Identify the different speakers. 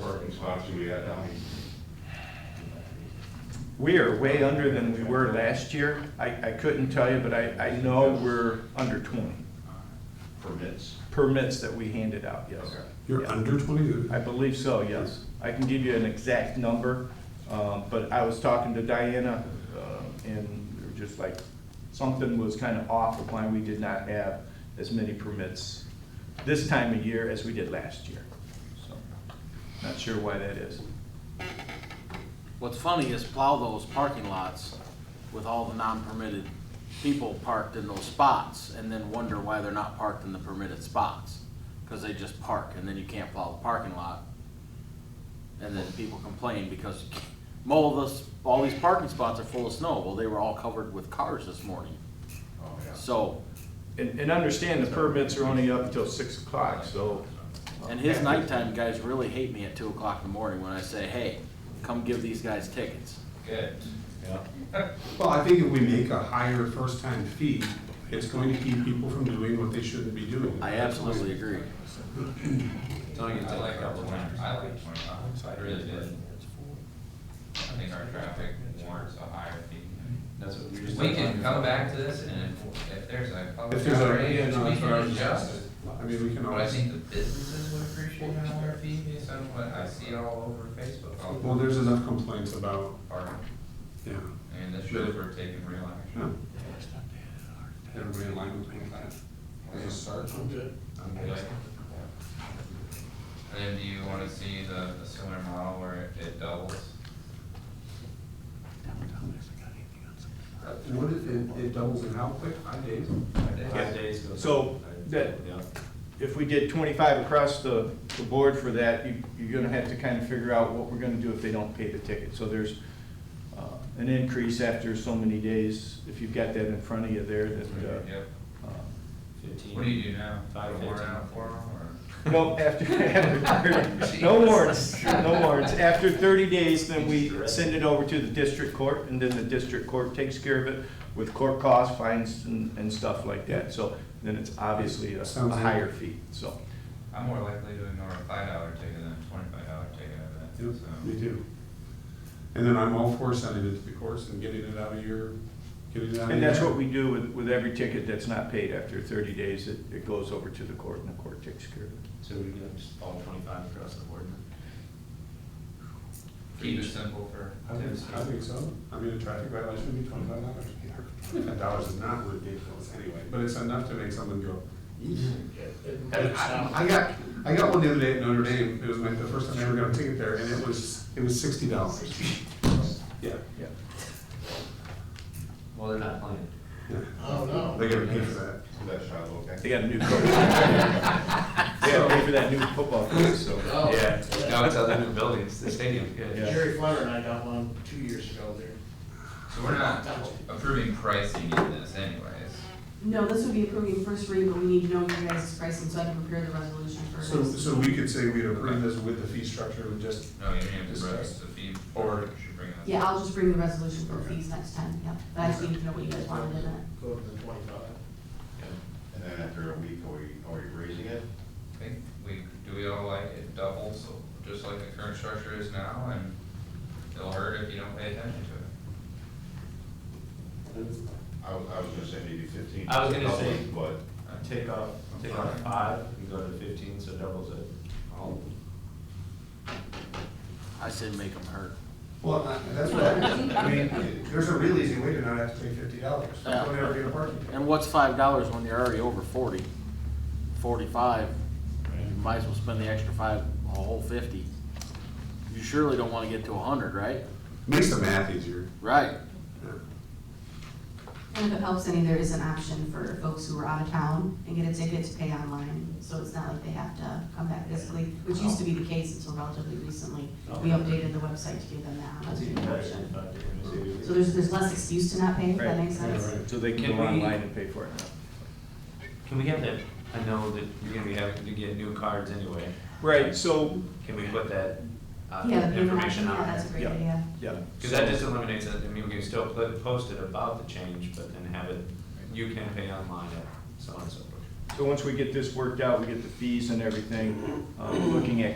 Speaker 1: cost are we at now?
Speaker 2: We are way under than we were last year. I, I couldn't tell you, but I, I know we're under twenty
Speaker 1: Permits?
Speaker 2: permits that we handed out, yes.
Speaker 1: Okay.
Speaker 3: You're
Speaker 2: Yeah.
Speaker 3: under twenty?
Speaker 2: I believe so, yes. I can give you an exact number, um, but I was talking to Diana, uh, and we were just like, something was kind of off of why we did not have as many permits this time of year as we did last year. So, Not sure why that is.
Speaker 4: What's funny is plow those parking lots with all the non-permitted people parked in those spots and then wonder why they're not parked in the permitted spots. Cause they just park and then you can't plow the parking lot. And then people complain because all this, all these parking spots are full of snow. Well, they were all covered with cars this morning.
Speaker 1: Oh, yeah.
Speaker 4: So,
Speaker 2: And, and understand the permits are only up till six o'clock, so.
Speaker 4: and his nighttime guys really hate me at two o'clock in the morning when I say, hey, come give these guys tickets.
Speaker 1: Good. Yeah.
Speaker 3: Well, I think if we make a higher first-time fee, it's going to keep people from doing what they shouldn't be doing.
Speaker 4: I absolutely agree.
Speaker 5: Don't get
Speaker 6: I
Speaker 5: that
Speaker 6: like our
Speaker 5: couple
Speaker 6: plan,
Speaker 5: times.
Speaker 6: I like twenty dollars, I really did. I think our traffic warrants a higher fee.
Speaker 5: That's what we were just
Speaker 6: We
Speaker 5: talking
Speaker 6: can come
Speaker 5: about.
Speaker 6: back to this and if, if there's a public
Speaker 3: If there's a, yeah,
Speaker 6: outrage,
Speaker 3: no,
Speaker 6: we
Speaker 3: that's what I
Speaker 6: can
Speaker 3: was
Speaker 6: adjust
Speaker 3: just,
Speaker 6: it.
Speaker 3: I mean, we can
Speaker 6: But I
Speaker 3: always,
Speaker 6: think the businesses would appreciate a higher fee based on what I see all over Facebook, all
Speaker 3: well, there's enough complaints about,
Speaker 6: park.
Speaker 3: yeah,
Speaker 6: And the chauffeur taking real action.
Speaker 3: yeah. Everybody in line with me.
Speaker 6: Is it
Speaker 3: Okay.
Speaker 6: Okay. And then do you wanna see the, the similar model where it- it doubles?
Speaker 3: What is, it, it doubles in how quick? Five days?
Speaker 2: Yeah.
Speaker 5: Five days goes
Speaker 2: So,
Speaker 5: up.
Speaker 2: that-
Speaker 5: Yeah.
Speaker 2: If we did twenty-five across the, the board for that, you, you're gonna have to kind of figure out what we're gonna do if they don't pay the ticket. So there's, uh, an increase after so many days, if you've got that in front of you there, that,
Speaker 6: Yep.
Speaker 2: uh, um,
Speaker 5: Fifteen.
Speaker 6: What do you do now?
Speaker 5: Five
Speaker 6: Fifteen
Speaker 5: warrant.
Speaker 6: on four or?
Speaker 2: uh, Nope, after, after, no warrants, no warrants. After thirty days, then we send it over to the district court, and then the district court takes care of it with court costs, fines, and, and stuff like that. So then it's obviously a a
Speaker 3: Sounds like-
Speaker 2: higher fee, so.
Speaker 6: I'm more likely to ignore a five dollar ticket than a twenty-five dollar ticket I
Speaker 3: Yep,
Speaker 6: bet,
Speaker 3: we
Speaker 6: so.
Speaker 3: do. And then I'm all for sending it to the courts and getting it out of your, getting it out of your.
Speaker 2: And that's what we do with, with every ticket that's not paid after thirty days, it, it goes over to the court, and the court takes care of it.
Speaker 5: So we get just all twenty-five across the board then?
Speaker 6: Keep it simple for
Speaker 3: I think, I think so. I mean, a traffic violation would be twenty-five dollars. Twenty-five dollars is not ridiculous anyway, but it's enough to make someone go, "Eesh." I I got, I got one the other day at Notre Dame. It was like the first time I ever got a ticket there and it was, it was sixty dollars. Yeah.
Speaker 2: Yeah.
Speaker 5: Well, they're not playing.
Speaker 3: Oh, no. They gotta pay for that.
Speaker 1: That shot, okay.
Speaker 2: They got a new coach. They gotta pay for that new football coach, so.
Speaker 5: Yeah. No, it's other new buildings, the stadium,
Speaker 2: Yeah.
Speaker 5: yeah.
Speaker 7: Jerry Flower and I got one two years ago there.
Speaker 6: So we're not approving pricing in this anyways.
Speaker 8: No, this would be approving first read, but we need to know your guys' pricing, so I can prepare the resolution first.
Speaker 3: So, so we could say we'd approve this with the fee structure and just,
Speaker 6: No, you didn't have to bring us
Speaker 3: Discuss.
Speaker 6: the fee.
Speaker 3: Or-
Speaker 6: You should bring us.
Speaker 8: Yeah, I'll just bring the resolution for
Speaker 3: Okay.
Speaker 8: fees next time, yeah, but I just need to know what you guys wanted in it.
Speaker 7: Go up to twenty-five.
Speaker 1: And then after a week, are we, are we raising it?
Speaker 6: I think we, do we all like it doubles, so just like the current structure is now, and it'll hurt if you don't pay attention to it.
Speaker 1: I was, I was gonna say maybe fifteen.
Speaker 5: I was gonna say-
Speaker 1: But
Speaker 5: Take off, take off five, you go to fifteen, so doubles it. All.
Speaker 4: I said make them hurt.
Speaker 3: well, that's what I, I mean, there's a real easy way to not have to pay fifty dollars.
Speaker 4: Yeah.
Speaker 3: Whatever you're parking.
Speaker 4: And what's five dollars when you're already over forty? Forty-five, you might as well spend the extra five, a whole fifty. You surely don't wanna get to a hundred, right?
Speaker 3: Makes the math easier.
Speaker 4: Right.
Speaker 8: And if it helps any, there is an option for folks who are out of town and get a ticket to pay online, so it's not like they have to come back physically, which used to be the case until relatively recently. We updated the website to give them that option. So there's, there's less excuse to not pay, if that
Speaker 2: Right.
Speaker 8: makes sense.
Speaker 2: So they can
Speaker 5: Can
Speaker 2: go
Speaker 5: we-
Speaker 2: online and pay for it now.
Speaker 5: Can we have that, I know that you're gonna be having to get new cards anyway.
Speaker 2: Right, so,
Speaker 5: Can we put that uh,
Speaker 8: Yeah, the payment option,
Speaker 5: information
Speaker 8: yeah,
Speaker 5: on
Speaker 8: that's
Speaker 5: there?
Speaker 8: a great
Speaker 2: Yeah.
Speaker 8: idea.
Speaker 2: yeah.
Speaker 5: Because that just eliminates it, I mean, we can still put- post it about the change, but then have it, you can pay online at so and so.
Speaker 2: So once we get this worked out, we get the fees and everything, um, looking at